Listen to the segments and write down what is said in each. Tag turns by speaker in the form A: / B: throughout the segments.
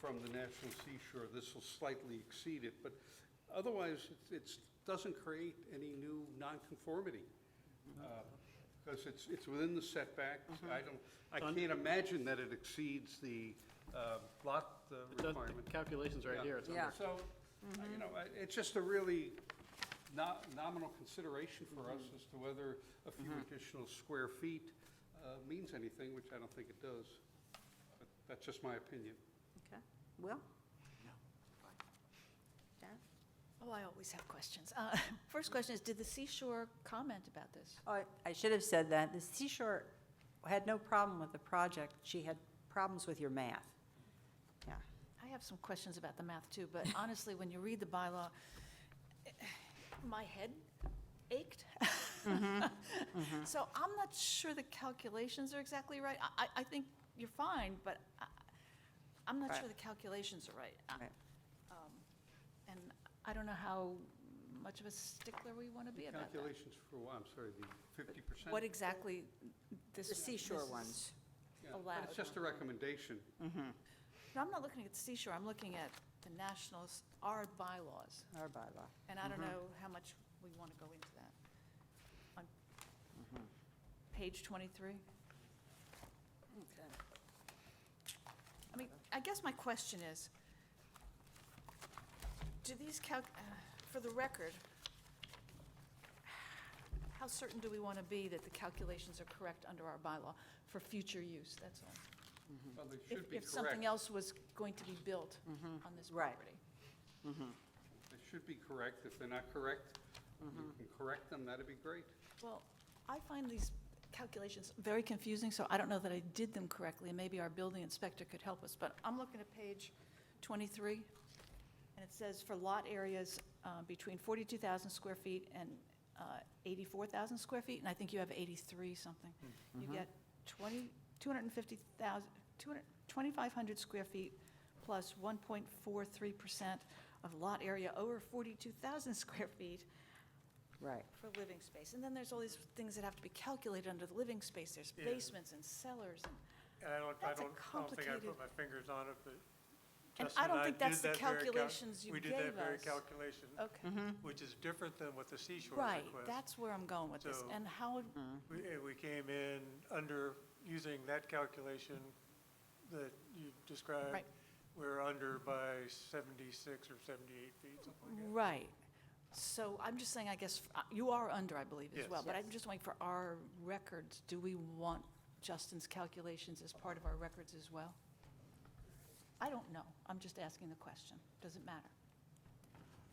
A: from the National Seashore, this will slightly exceed it, but otherwise, it's- it's, doesn't create any new nonconformity. uh, Because it's, it's within the setbacks, I don't, I can't imagine that it exceeds the uh, lot uh,
B: The
A: requirement.
B: Calculations right
A: Yeah.
B: here, it's
C: Yeah.
B: under,
A: So, uh, you know, I- it's just a really no- nominal consideration for us as to whether a few additional square feet uh, means anything, which I don't think it does. But That's just my opinion.
C: Okay, Will? Sharon?
D: Oh, I always have questions. Uh, First question is, did the seashore comment about this?
C: Oh, I- I should have said that. The Seashore had no problem with the project. She had problems with your math. Yeah.
D: I have some questions about the math too, but honestly, when you read the bylaw, eh, my head ached. Mm-hmm. So I'm not sure the calculations are exactly right. I, I- I think you're fine, but I, I'm not
C: Right.
D: sure the calculations are right. I-
C: Right.
D: um, And I don't know how much of a stickler we want to be about that.
A: Calculations for, what? I'm sorry, the fifty percent?
D: What exactly this.
C: The seashore
D: this is-
C: ones.
A: It's
D: allowed.
A: just a recommendation.
C: Mm-hmm.
D: No, I'm not looking at the seashore, I'm looking at the nationals, our bylaws,
C: Our bylaw.
D: and I don't know how much we want to go into that. On page 23? I mean, I guess my question is, do these calc, uh, for the record, how certain do we want to be that the calculations are correct under our bylaw for future use, that's all?
A: Well, they
D: If-
A: should be
D: If something
A: correct.
D: else was going to be built on this
C: Right.
D: property.
A: They should be correct. If they're not correct,
D: Mm-hmm.
A: you can correct them, that'd be great.
D: Well, I find these calculations very confusing, so I don't know that I did them correctly, and maybe our building inspector could help us, but I'm looking at page 23, and it says for lot areas uh, between 42,000 square feet and uh, 84,000 square feet, and I think you have 83 something. You get 20, 250,000, 200 2,500 square feet plus 1.43% of lot area over 42,000 square feet
C: Right.
D: for living space. And then there's all these things that have to be calculated under the living space. There's
E: Yeah.
D: basements and cellars and,
E: And I don't, I
D: That's a
E: don't, I don't think I
D: complicated-
E: put my fingers on it, but
D: and
E: Justin
D: I
E: and
D: don't
E: I
D: think
E: did
D: that's the
E: that very cal-
D: calculations you
E: We
D: gave
E: did
D: us.
E: that very calculation,
D: Okay,
E: which is different than what the seashore
D: right,
E: request.
D: that's where I'm going with this.
E: So-
D: And how,
E: We, eh, we came in under, using that calculation that you described.
D: Right.
E: We're under by seventy-six or seventy-eight feet, something like
D: right. So I'm just saying, I guess, uh, you are under, I believe, as
E: Yes.
D: well. But I'm just waiting for our records. Do we want Justin's calculations as part of our records as well? I don't know. I'm just asking the question. Does it matter?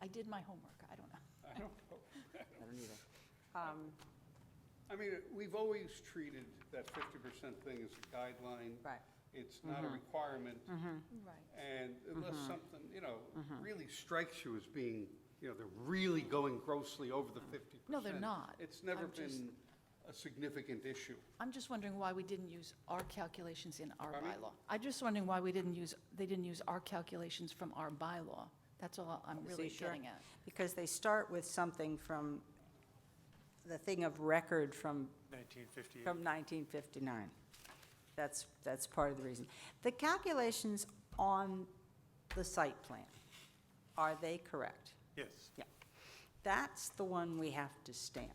D: I did my homework. I don't know.
A: I don't know.
C: I don't either. Um,
A: I mean, we've always treated that fifty percent thing as a guideline.
C: Right.
A: It's not a
D: Mm-hmm.
A: requirement.
D: Right.
A: And unless
D: Mm-hmm.
A: something, you know, really strikes you as being, you know, they're really going grossly over the fifty percent.
D: Mm-hmm. No, they're not.
A: It's never
D: I'm just-
A: been a significant issue.
D: I'm just wondering why we didn't use our calculations in our
A: Pardon me?
D: bylaw. I'm just wondering why we didn't use, they didn't use our calculations from our bylaw. That's all I'm really
C: seashore.
D: getting at.
C: Because they start with something from, the thing of record from
E: that, nineteen fifty-eight.
C: From 1959. That's, that's part of the reason. The calculations on the site plan, are they correct?
E: Yes,
C: Yeah. That's the one we have to stamp.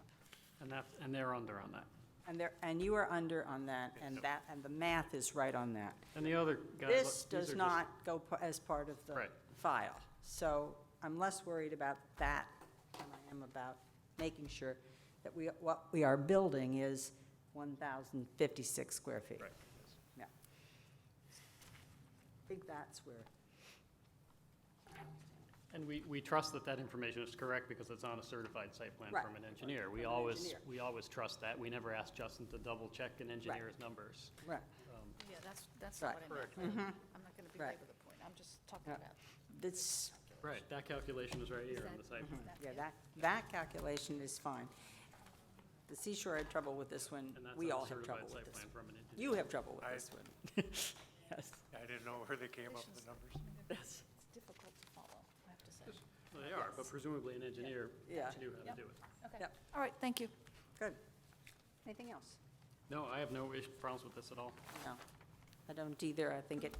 B: and that, and they're under on that.
C: And there, and you are under on that, and that, and the math is right on that.
B: And the other guys.
C: This
B: these are
C: does
B: just-
C: not go pa- as part of the
B: Right.
C: file. So I'm less worried about that than I am about making sure that we, what we are building is 1,056 square feet.
B: Right.
C: Yeah. I think that's where,
B: And we, we trust that that information is correct because it's on a certified site plan
C: Right.
B: from an engineer. We
C: From an
B: always,
C: engineer.
B: we always trust that. We never ask Justin to double check an engineer's numbers.
C: right.
D: Yeah, that's, that's
C: not
D: not
C: Right. Mm-hmm.
D: what I meant. I'm not going to
C: Right.
D: belabor the point. I'm just talking
C: Yeah.
D: about.
C: This,
B: Right, that calculation is right here on the site plan.
C: yeah, that, that calculation is fine. The seashore had trouble with this one.
B: And that's
C: We
B: on
C: all
B: a
C: have trouble with
B: certified site
C: this.
B: plan from an engineer.
C: You have trouble with
E: I-
C: this one. Yes,
E: I didn't know where they came up with the numbers.
C: yes.
D: It's difficult to follow, I have to say.
B: Well, They are, but presumably an engineer
C: Yeah.
B: knew how
D: Yep.
B: to do it.
D: Okay,
C: Yep.
D: all right, thank you.
C: Good. Anything else?
B: No, I have no ish- problems with this at all.
C: No, I don't either. I think it